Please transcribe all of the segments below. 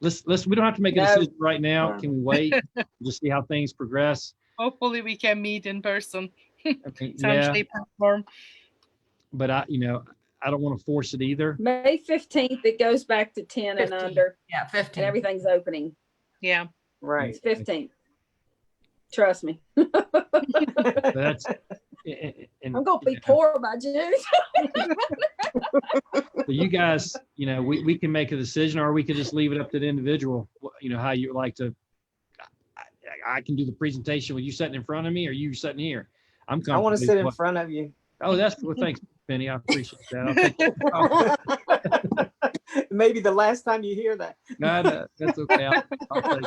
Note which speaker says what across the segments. Speaker 1: let's, let's, we don't have to make a
Speaker 2: No.
Speaker 1: decision right now.
Speaker 2: No.
Speaker 1: Can we wait? Just see how things progress?
Speaker 3: Hopefully, we can meet in person, some
Speaker 1: Yeah,
Speaker 3: shape and form.
Speaker 1: but I, you know, I don't want to force it either.
Speaker 2: May fifteenth, it goes back to ten and
Speaker 4: 15,
Speaker 2: under,
Speaker 4: Yeah,
Speaker 2: and
Speaker 4: fifteen.
Speaker 2: everything's opening.
Speaker 3: Yeah.
Speaker 5: Right.
Speaker 2: It's fifteen. Trust me,
Speaker 1: But That's. and- and-
Speaker 2: I'm gonna be
Speaker 1: yeah.
Speaker 2: poor by June.
Speaker 1: So you guys, you know, we, we can make a decision or we could just leave it up to the individual, wh- you know, how you would like to. I- I, I can do the presentation. with you sitting in front of me or you sitting here? I'm
Speaker 5: I
Speaker 1: comfortable.
Speaker 5: want to sit in
Speaker 1: with-
Speaker 5: front of you.
Speaker 1: Oh, that's, well, thanks, Penny. I appreciate that. I'll take that. Oh,
Speaker 5: Maybe the last time you hear that.
Speaker 1: No, no, that's okay. I'll- I'll take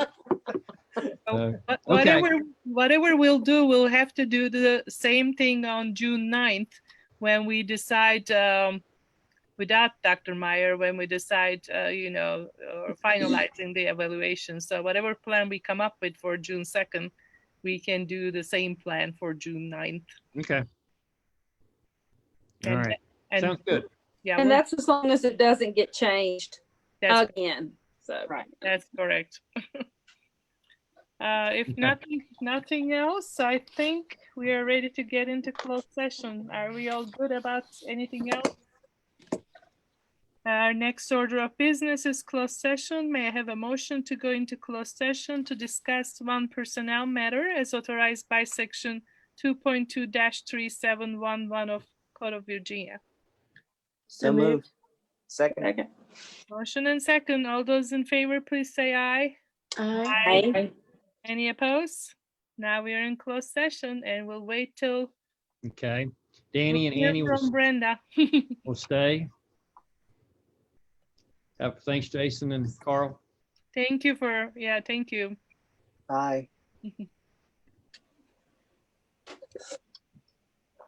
Speaker 1: it. So,
Speaker 3: But
Speaker 1: Okay.
Speaker 3: whatever, whatever we'll do, we'll have to do the same thing on June 9th when we decide, um, without Dr. Meyer, when we decide, uh, you know, or finalizing the evaluation. So whatever plan we come up with for June 2nd, we can do the same plan for June 9th.
Speaker 1: Okay. All
Speaker 3: And-
Speaker 1: right.
Speaker 3: And
Speaker 1: Sounds good.
Speaker 3: Yeah,
Speaker 2: And
Speaker 3: we'll-
Speaker 2: that's uh, as long as it doesn't get changed
Speaker 3: that's,
Speaker 2: again, so.
Speaker 4: Right.
Speaker 3: that's correct. Uh, if
Speaker 1: Okay.
Speaker 3: nothing, nothing else, I think we are ready to get into closed session. Are we all good about anything else? Our next order of business is closed session. May I have a motion to go into closed session to discuss one personnel matter as authorized by section two point two three seven one one of Code of Virginia?
Speaker 5: So moved. Second.
Speaker 2: Okay.
Speaker 3: Motion and second. All those in favor, please say aye.
Speaker 2: Aye.
Speaker 3: Any opposed? Now we are in closed session and we'll wait till
Speaker 1: Okay.
Speaker 3: we
Speaker 1: Danny and
Speaker 3: hear
Speaker 1: Annie will,
Speaker 3: from Brenda.
Speaker 1: will stay. Uh, Thanks, Jason and Carl.
Speaker 3: Thank you for, yeah, thank you.
Speaker 5: Bye.